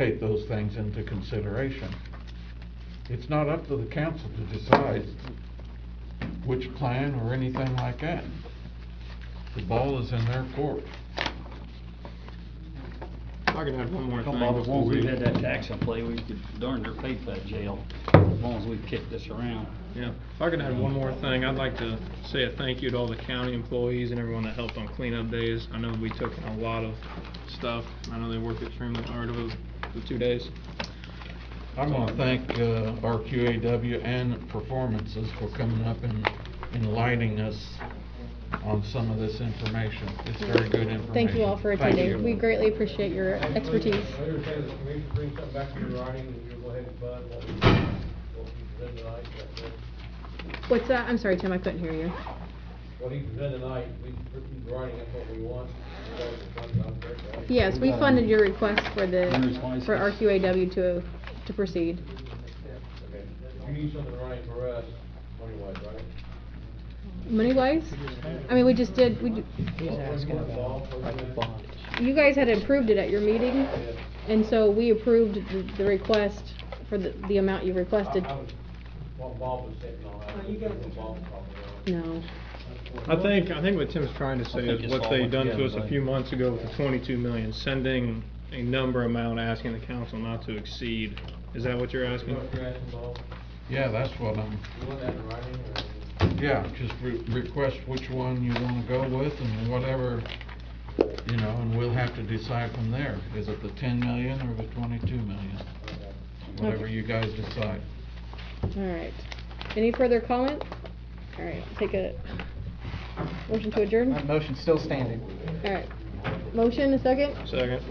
take those things into consideration. It's not up to the council to decide which plan or anything like that. The ball is in their court. If I could add one more Don't thing, bother, as won't long as we we? had that tax in play, we could darn near pay for that jail, as long as we kick this around. Yeah, if I could add one more thing, I'd like to say a thank you to all the county employees and everyone that helped on cleanup days. I know we took in a lot of stuff, I know they worked extremely hard over the two days. I want to thank uh, RQAW and Performances for coming up and enlightening us on some of this information. It's very good information. Thank you all for Thank attending. you. We greatly appreciate your expertise. Later, if the commission brings something back to your writing, and you'll go ahead and fund what we, what we present tonight, that's it. What's that? I'm sorry, Tim, I couldn't hear you. What he presented tonight, we, he's writing, that's what we want. That's what we want, I'm correct, right? Yes, we funded your request for the, Hunter's license. for RQAW to, to proceed. Okay. You need something running for us, money-wise, right? Money-wise? I mean, we just did, we, d- He's asking about, like, the bond. you guys had approved it at your meeting, and so we approved the- the request for the, the amount you requested. What Bob was saying, no, I was what Bob was talking about. No. I think, I think what Tim's trying to think say is it's what all they went done to together, us a like- few months ago with the twenty-two million, sending a number amount, asking the council not to exceed. Is that what you're You asking? know what you're asking, Bob? Yeah, that's what I'm, You want that in writing, or? yeah, just re- request which one you want to go with and whatever, you know, and we'll have to decide from there. Is it the 10 million or the 22 million? Whatever Okay. you guys decide. All right. Any further comment? All right, take a motion to adjourn? My motion's still standing. All right. Motion, a second? Second.